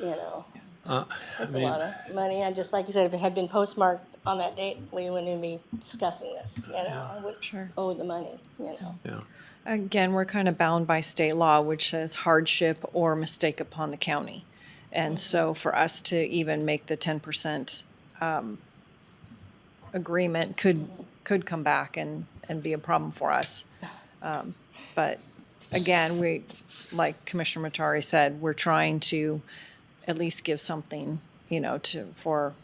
you know, Uh, I it's a lot mean, of money. I just, like you said, if it had been postmarked on that date, we wouldn't even be discussing this, you know, I would Sure. owe the money, you know. yeah. Again, we're kind of bound by state law, which says hardship or mistake upon the county. And so for us to even make the ten percent agreement could, could come back and, and be a problem for us. Um, But again, we, like Commissioner Matari said, we're trying to at least give something, you know, to, for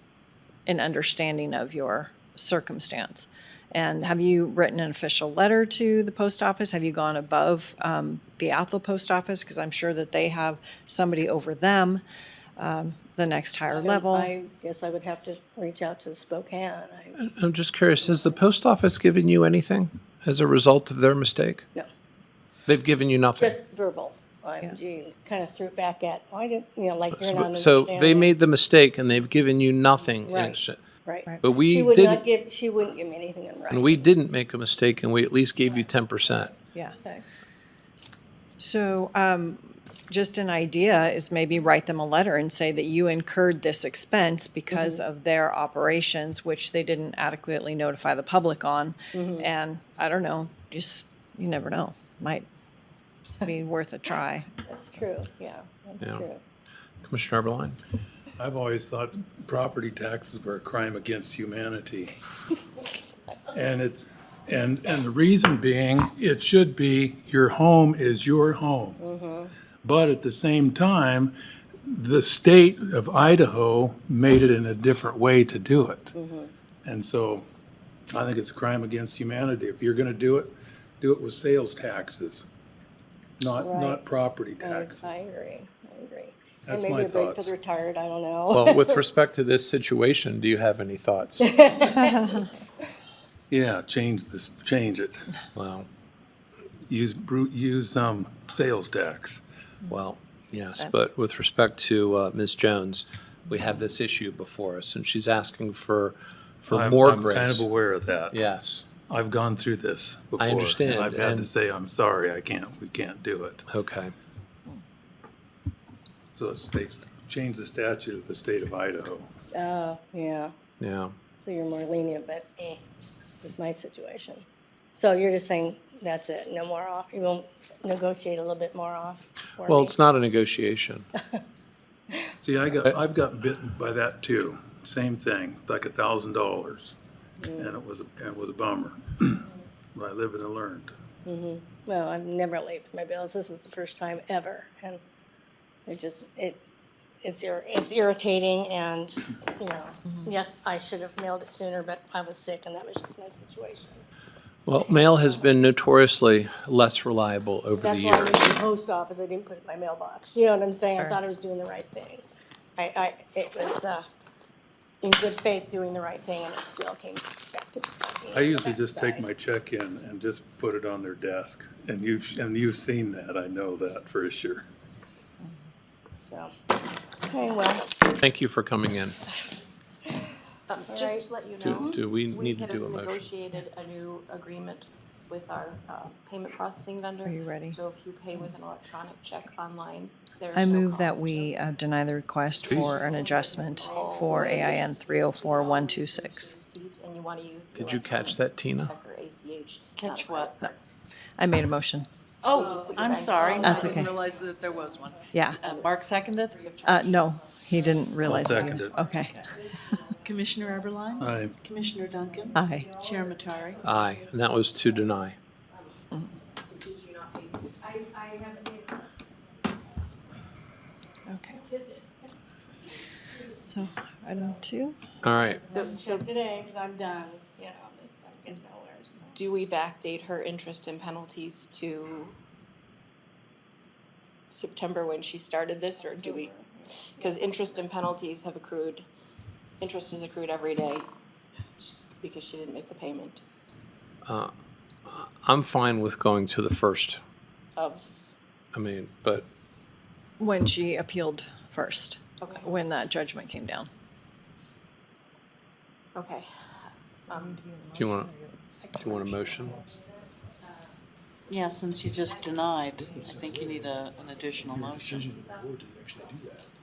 an understanding of your circumstance. And have you written an official letter to the post office? Have you gone above um, the Athol post office? Because I'm sure that they have somebody over them, um, the next higher level. I guess I would have to reach out to Spokane. I, I'm just curious, has the post office given you anything as a result of their mistake? no, They've given you nothing. just verbal. OMG, kind of threw it back at, why did, you know, like you're So not. so they understanding. made the mistake and they've given you nothing. in Right. exchange. Right. But She we would not didn't, give, she wouldn't give me anything in and writing. we didn't make a mistake and we at least gave you ten percent. Yeah. Okay. So, um, just an idea is maybe write them a letter and say that you incurred this expense because of their operations, which they didn't adequately notify the public on. And I don't know, just, you never know, might be worth a try. That's true, yeah, that's Yeah. true. Commissioner Eberline? I've always thought property taxes were a crime against humanity. And it's, and, and the reason being, it should be, your home is your home. Mm-hmm. But at the same time, the state of Idaho made it in a different way to do it. Mm-hmm. And so I think it's a crime against humanity. If you're gonna do it, do it with sales taxes, not, not Right. property I I taxes. agree, I agree. And That's maybe my a break for thoughts. the retired, I don't know. Well, with respect to this situation, do you have any thoughts? Yeah, change this, change it. Well, use brute use um sales tax. well, yes, but with respect to uh, Ms. Jones, we have this issue before us and she's asking for, for I'm- more I'm kind grace. of aware of that. Yes, I've gone through this before. and understand, I've had to and- say, I'm sorry, I can't, we can't do it. okay. So the states change the statute of the state of Idaho. Oh, yeah, Yeah, so you're more lenient, but eh, with my situation. So you're just saying, that's it, no more off, you won't negotiate a little bit more off? for well, me? it's not a negotiation. See, I got, I've gotten bitten by that too. Same thing, like a thousand dollars. And it was, a- it was a bummer. But I lived and I learned. No, I'm never late with my bills. This is the first time ever, and it just it it's ir- it's irritating, and you know, yes, I should have mailed it sooner, but I was sick, and that was just my situation. Well, mail has been notoriously less reliable over the That's why I years. went to the post office. I didn't put it in my mailbox. You know what I'm saying? I Sure. thought I was doing the right thing. I, I it was uh, in good faith doing the right thing, and it still came back to. me on I the usually just take backside. my check in and just put it on their desk. And you've, and you've seen that, I know that for sure. So, okay, well, Thank you for coming in. Um, Just to let you Do, know. do we we need to had do a motion? Negotiated a new agreement with our uh, payment processing vendor. Are you ready? So if you pay with an electronic check online, there's I no move that cost. we uh, deny the request for an adjustment for AIN three oh four one two six. Receipt And you want to use. the Did you catch that, electronic Tina? check or ACH. not Catch a credit what? card. I made a motion. Oh, I'm sorry. That's I didn't okay. realize that there was one. Yeah. Uh, Mark seconded. Uh, no, he didn't realize. that. second it. Okay. Commissioner Eberline? I, Commissioner Duncan? Aye. Chair Matari? Aye, and that was to deny. Did you not pay? Okay. So item two. All right, So, so today, because I'm done. You know, I'm just I'm getting nowhere. So. do we backdate her interest and penalties to September when she started this, or do we? Because interest and penalties have accrued, interest is accrued every day because she didn't make the payment I'm fine with going to the first. of, I mean, but When she appealed first. Okay. When that judgment came down. okay. Um, do you want, do you want a motion? Yeah, since you just denied, I think you need a, an additional motion. decision of the board to actually do that.